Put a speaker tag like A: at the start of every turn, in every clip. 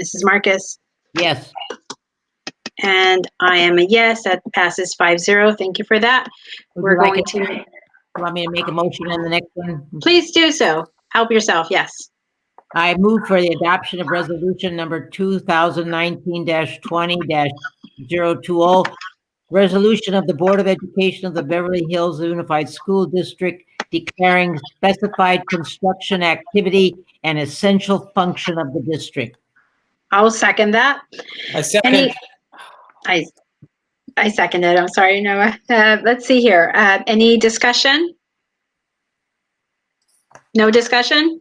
A: Mrs. Marcus?
B: Yes.
A: And I am a yes, that passes five zero. Thank you for that.
B: Would you
A: We're
B: like
A: going
B: it-
A: to,
B: you Want me to make a motion on the next one?
A: please do so. Help yourself, yes.
B: I move for the adoption of resolution number two thousand nineteen twenty 20 oh. Resolution of the Board of Education of the Beverly Hills Unified School District declaring specified construction activity an essential function of the district.
A: I'll second that.
C: I
A: Any,
C: second,
A: I, I second it. I'm sorry, Noah. Uh, let's see here. Uh, any discussion? No discussion?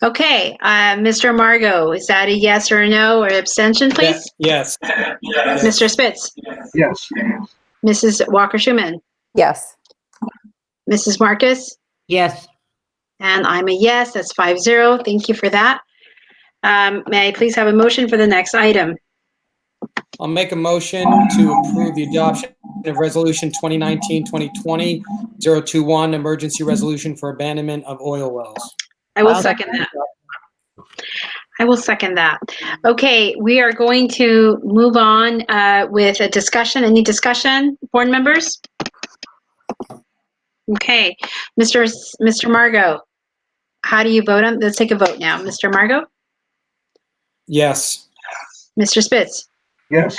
A: Okay, uh, Mr. Margot, is that a yes or a no or abstention,
C: Yeah,
A: please?
C: yes,
A: Mr. Spitz?
D: Yes.
A: Mrs. Walker Schuman?
E: Yes.
A: Mrs. Marcus?
B: Yes,
A: And I'm a yes, that's five zero. Thank you for that. Um, may I please have a motion for the next item?
C: I'll make a motion to approve the adoption of Resolution 2019-2020-021, emergency resolution for abandonment of oil wells.
A: I will
B: I'll
A: second that. I will second that. Okay, we are going to move on uh, with a discussion. Any discussion, board members? Okay, Mr. S- Mr. Margot, how do you vote on, let's take a vote now. Mr. Margot?
C: Yes,
A: Mr. Spitz?
D: Yes.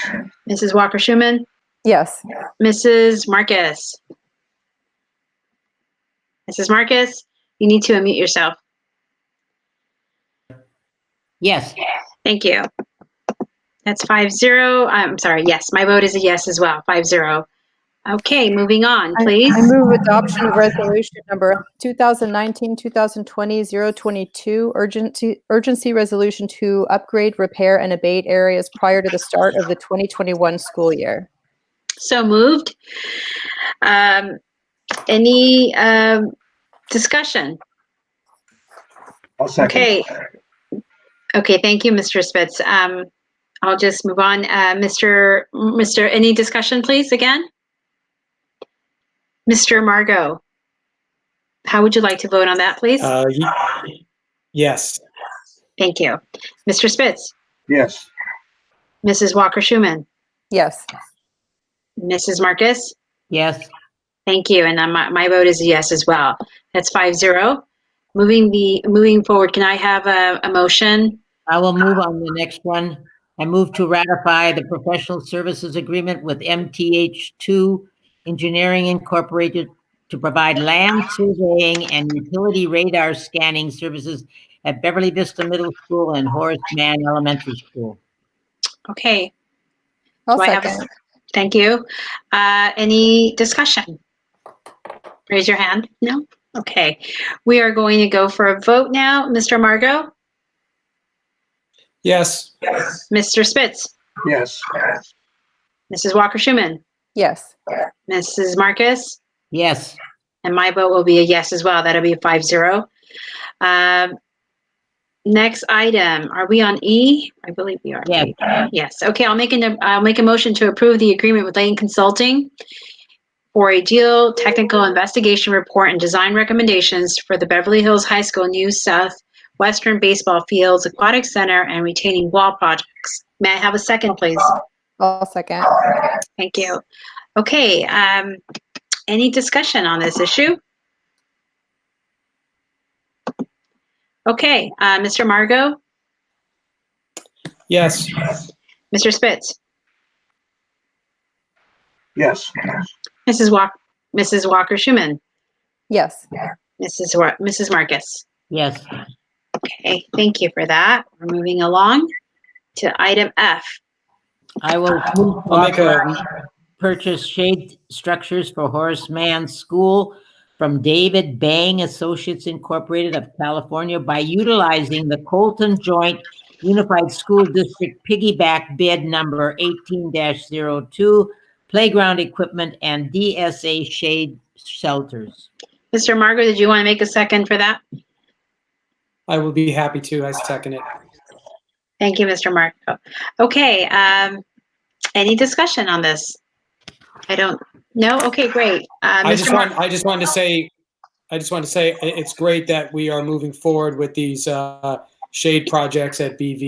A: Mrs. Walker Schuman?
E: Yes.
A: Mrs. Marcus? Mrs. Marcus, you need to unmute yourself.
B: yes.
A: Thank you. That's five zero. I'm sorry. Yes, my vote is a yes as well. Five zero. Okay, moving on,
E: I-
A: please.
E: I move adoption of resolution number 2019-2020-022, urgency, urgency resolution to upgrade, repair, and abate areas prior to the start of the 2021 school year.
A: So moved. Um, any um, discussion?
D: I'll second.
A: Okay. Okay. Thank you, Mr. Spitz. Um, I'll just move on. Uh, Mr. Mr. Any discussion, please? Again, Mr. Margot, how would you like to vote on that, please?
C: uh, y- yes,
A: Thank you, Mr. Spitz.
D: Yes.
A: Mrs. Walker Schuman,
E: Yes.
A: Mrs. Marcus,
B: Yes,
A: thank you, and uh, my, my vote is a yes as well. That's five zero. Moving the, moving forward, can I have a, a motion?
B: I will move on the next one. I move to ratify the professional services agreement with MTH2 Engineering Incorporated to provide land surveying and utility radar scanning services at Beverly Vista Middle School and Horace Mann Elementary School.
A: Okay,
E: I'll
A: Do I have a
E: second.
A: thank you. Uh, any discussion? Raise your hand. No? Okay. We are going to go for a vote now. Mr. Margot,
C: yes,
A: Mr. Spitz,
D: Yes.
A: Mrs. Walker Schuman,
E: Yes.
A: Mrs. Marcus,
B: Yes,
A: And my vote will be a yes as well. That'll be five zero. Um, next item, are we on E? I believe we are.
B: yes,
A: Yes. Okay, I'll make an, I'll make a motion to approve the agreement with Lane Consulting for a deal, technical investigation report and design recommendations for the Beverly Hills High School New South Western Baseball Fields Aquatic Center and retaining wall projects. May I have a second, please?
E: I'll second.
A: Thank you. Okay, um, any discussion on this issue? Okay, uh, Mr. Margot,
C: yes,
A: Mr. Spitz,
D: Yes.
A: Mrs. Walk, Mrs. Walker Schuman,
E: Yes.
A: Mrs. Wa- Mrs. Marcus.
B: yes.
A: Okay, thank you for that. We're moving along to item F.
B: I will move to
C: I'll make a-
B: authorize purchase shade structures for Horace Mann School from David Bang Associates Incorporated of California by utilizing the Colton Joint Unified School District piggyback bid number eighteen 2 playground equipment and DSA shade shelters.
A: Mr. Margot, did you want to make a second for that?
C: I will be happy to, I second it.
A: Thank you, Mr. Marco. Okay, um, any discussion on this? I don't, no, okay, great. Uh,
C: I just
A: Mr. Mark,
C: want, I just wanted to say, I just wanted to say, i- it's great that we are moving forward with these, uh, shade projects at BV